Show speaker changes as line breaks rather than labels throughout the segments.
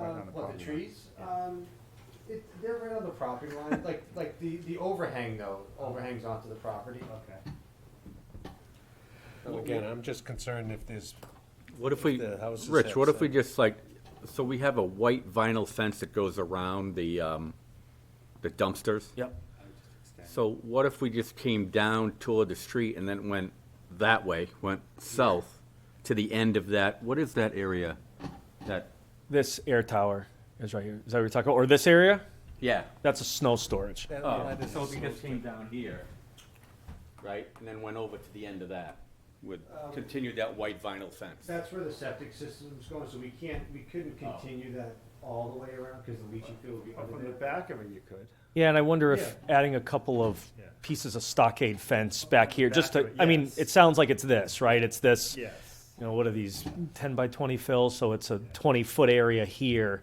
Um, What,
property
the
line.
trees?
Yeah.
Um, it, they're right on the property line, like, like the, the overhang though,
Uh-huh.
overhangs onto the property.
Okay.
Well, Again, I'm just concerned if there's,
What if we,
The house is
Rich, what if we
outside.
just like, so we have a white vinyl fence that goes around the, um, the dumpsters?
yep,
So what if we just came down toward the street and then went that way, went south to the end of that, what is that area? That,
This air tower is right here. Is that what you're talking about? Or this area?
yeah.
That's a snow storage.
that,
Oh,
that is.
so if we just came down here, right, and then went over to the end of that, would
Um,
continue that white vinyl fence?
That's where the septic system's going, so we can't, we couldn't continue that all the way around, cause the leaching field would be
Oh. From
under
the
there.
back of it, you could.
Yeah, and I wonder if adding a couple of
Yeah.
pieces of stockade fence back here, just to,
Back,
I mean,
yes.
it sounds like it's this, right? It's this, you
Yes.
know, what are these, ten by twenty fills, so it's a twenty-foot area here.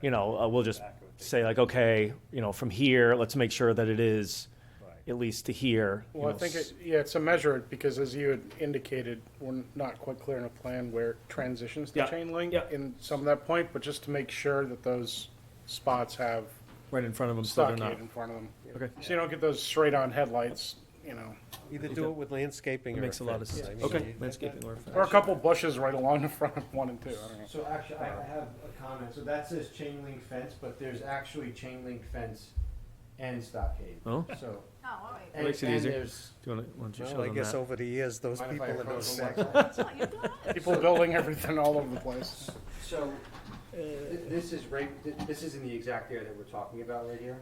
You know, uh, we'll just
Back would be-
say like, okay, you know, from here, let's make sure that it is
Right.
at least to here. you
Well, I
know,
think,
s-
it- yeah, it's a measure, because as you had indicated, we're not quite clear in a plan where it transitions to
Yeah,
chain link
yeah.
in some of that point, but just to make sure that those spots have
Right in front of them, so they're not.
stockade in front of them.
Okay.
So you don't get those straight-on headlights, you know,
Either do it with landscaping
That
or.
makes a lot of
fence. I
sense.
mean, you-
Okay,
that-
landscaping or
or a couple bushes right along the front of one and two, I don't know.
So actually, I
Uh-huh.
I have a comment, so that says chain link fence, but there's actually chain link fence and stockade,
Oh.
so.
Oh, all right.
and-
Makes it easier.
And there's.
Do you wanna, why don't you
Well, I
show them
guess
that?
over the years, those
mind if I
people in
approach
those
from one
sections.
side?
That's all, you're good.
People building everything all over the place.
So, th- this is right, th- this is in the exact area that we're talking about right here?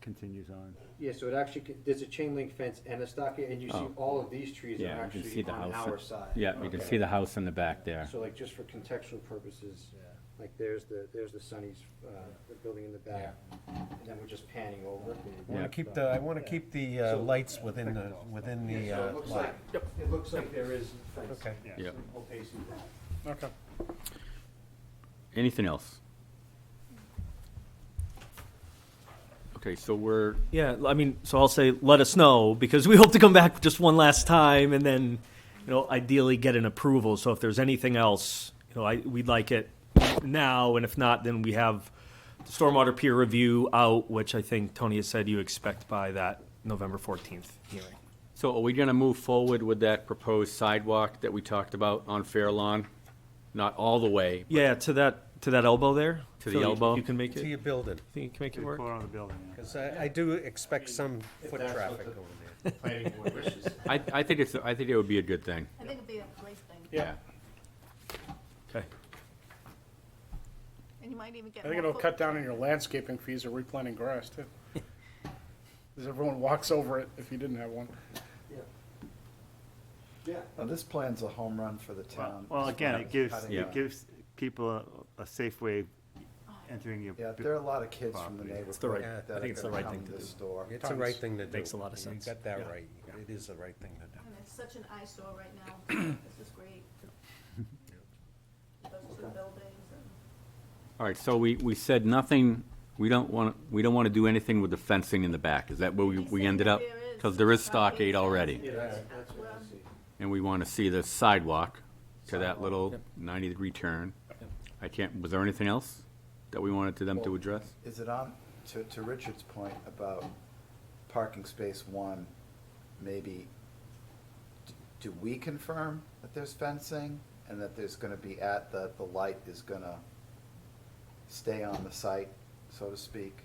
Continues on.
Yeah, so it actually, c- there's a chain link fence and a stockade, and you see
Oh.
all of these trees are
Yeah, you can see
actually
the
on
house.
our side.
Yeah, we can
Okay.
see the house in the back there.
So like, just for contextual purposes, like there's the, there's the Sunny's, uh, the building in the back, and then we're just panning over.
I wanna
Yeah.
keep the, I wanna keep the, uh,
So-
lights within the, within the,
Yeah, so
uh,
it looks
lot.
like, it looks like there is fence.
Okay.
Yeah.
some Opacity.
Okay.
Anything else? Okay, so we're,
Yeah, I mean, so I'll say, let us know, because we hope to come back just one last time, and then, you know, ideally get an approval, so if there's anything else, you know, I, we'd like it now, and if not, then we have the stormwater peer review out, which I think Tony has said you expect by that November fourteenth hearing.
so are we gonna move forward with that proposed sidewalk that we talked about on Fair Lawn? Not all the way,
Yeah, to that, to that elbow there?
To the
Phil, you-
elbow?
You can make
To
it, you
your building,
think you can make it work?
Put on the building, yeah.
cause I, I do expect some
If
foot
that's what
traffic
the-
over there.
Planning board wishes.
I, I think it's, I think it would be a good thing,
I think it'd be a great thing,
Yeah.
yeah.
Okay.
and you might even get
I
more.
think it'll
fo-
cut down on your landscaping fees or replanting grass, too. Because everyone walks over it if you didn't have one.
Yeah.
Now, this plan's a home run for the
Well-
town.
Well, again, it gives,
Cutting
Yeah.
it gives people a- a safe way entering your.
Yeah,
bu-
there are a lot of kids from the
Property.
neighborhood
It's the right-
that
I
are
think it's the
gonna
right
come
thing to
this
do.
door.
It's the right thing to do.
Makes a lot of sense.
You got that
Yeah.
right. It is the right thing to do.
And it's such an eyesore right now, this is great. Those two buildings and.
All right, so we, we said nothing, we don't want, we don't want to do anything with the fencing in the back, is that where we, we ended up? Because there is stockade already,
Yeah, that's, that's what I see.
and we want to see the sidewalk to that little ninety-degree turn. I can't, was there anything else that we wanted to them to address?
Is it on, to, to Richard's point about parking space one, maybe, d- do we confirm that there's fencing and that there's gonna be at, that the light is gonna stay on the site, so to speak?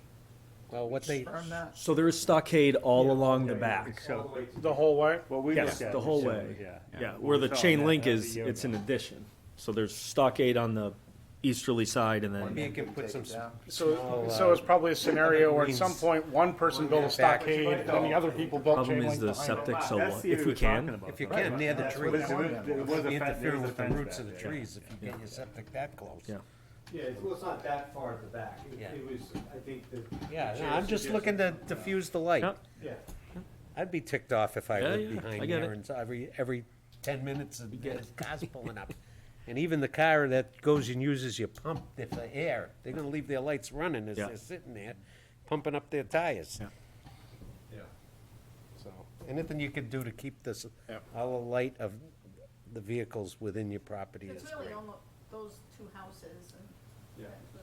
Well, what they,
Confirm that?
So there is stockade all along the
yeah,
back.
So-
All the way to
The whole way?
What we
Yes,
looked at
the
is
whole
similar,
way.
Yeah.
Yeah,
What
where
we
the
saw
chain
that-
link
that was
is,
a year
it's
ago.
an addition. So there's stockade on the easterly side and
Or
maybe you
then,
maybe
can
we
put
take
some,
it down?
So,
Well,
so
uh,
it's probably a scenario where at some
means-
point, one person built a
Back.
stockade, and then the other people built
problem
chain
is
link
the
behind it.
septic, so
That's
what-
the area
if we
we're talking
can,
about,
if you
right?
can, near the
That's
trees.
what they want.
There was a
You
fence- there
interfere
was a
with the
fence
roots
back
of the
there.
trees if you get your septic that close.
Yeah.
Yeah, it's- well, it's not that far at the back. It-
Yeah.
It was, I think the.
Yeah,
the
no,
chair
I'm just
suggested-
looking to diffuse the light.
Yeah.
Yeah.
I'd be ticked off if I
Yeah,
lived
yeah, I
behind
get
there
it.
and so every, every ten minutes and there's cars pulling up. And even the car that goes and uses your pump, if the air, they're gonna leave their lights running as
Yeah.
they're sitting there, pumping up their tires.
Yeah.
Yeah.
So, anything you could do to keep this,
Yep.
all the light of the vehicles within your property is
It's really
great.
almost those two houses and.
Yeah.
and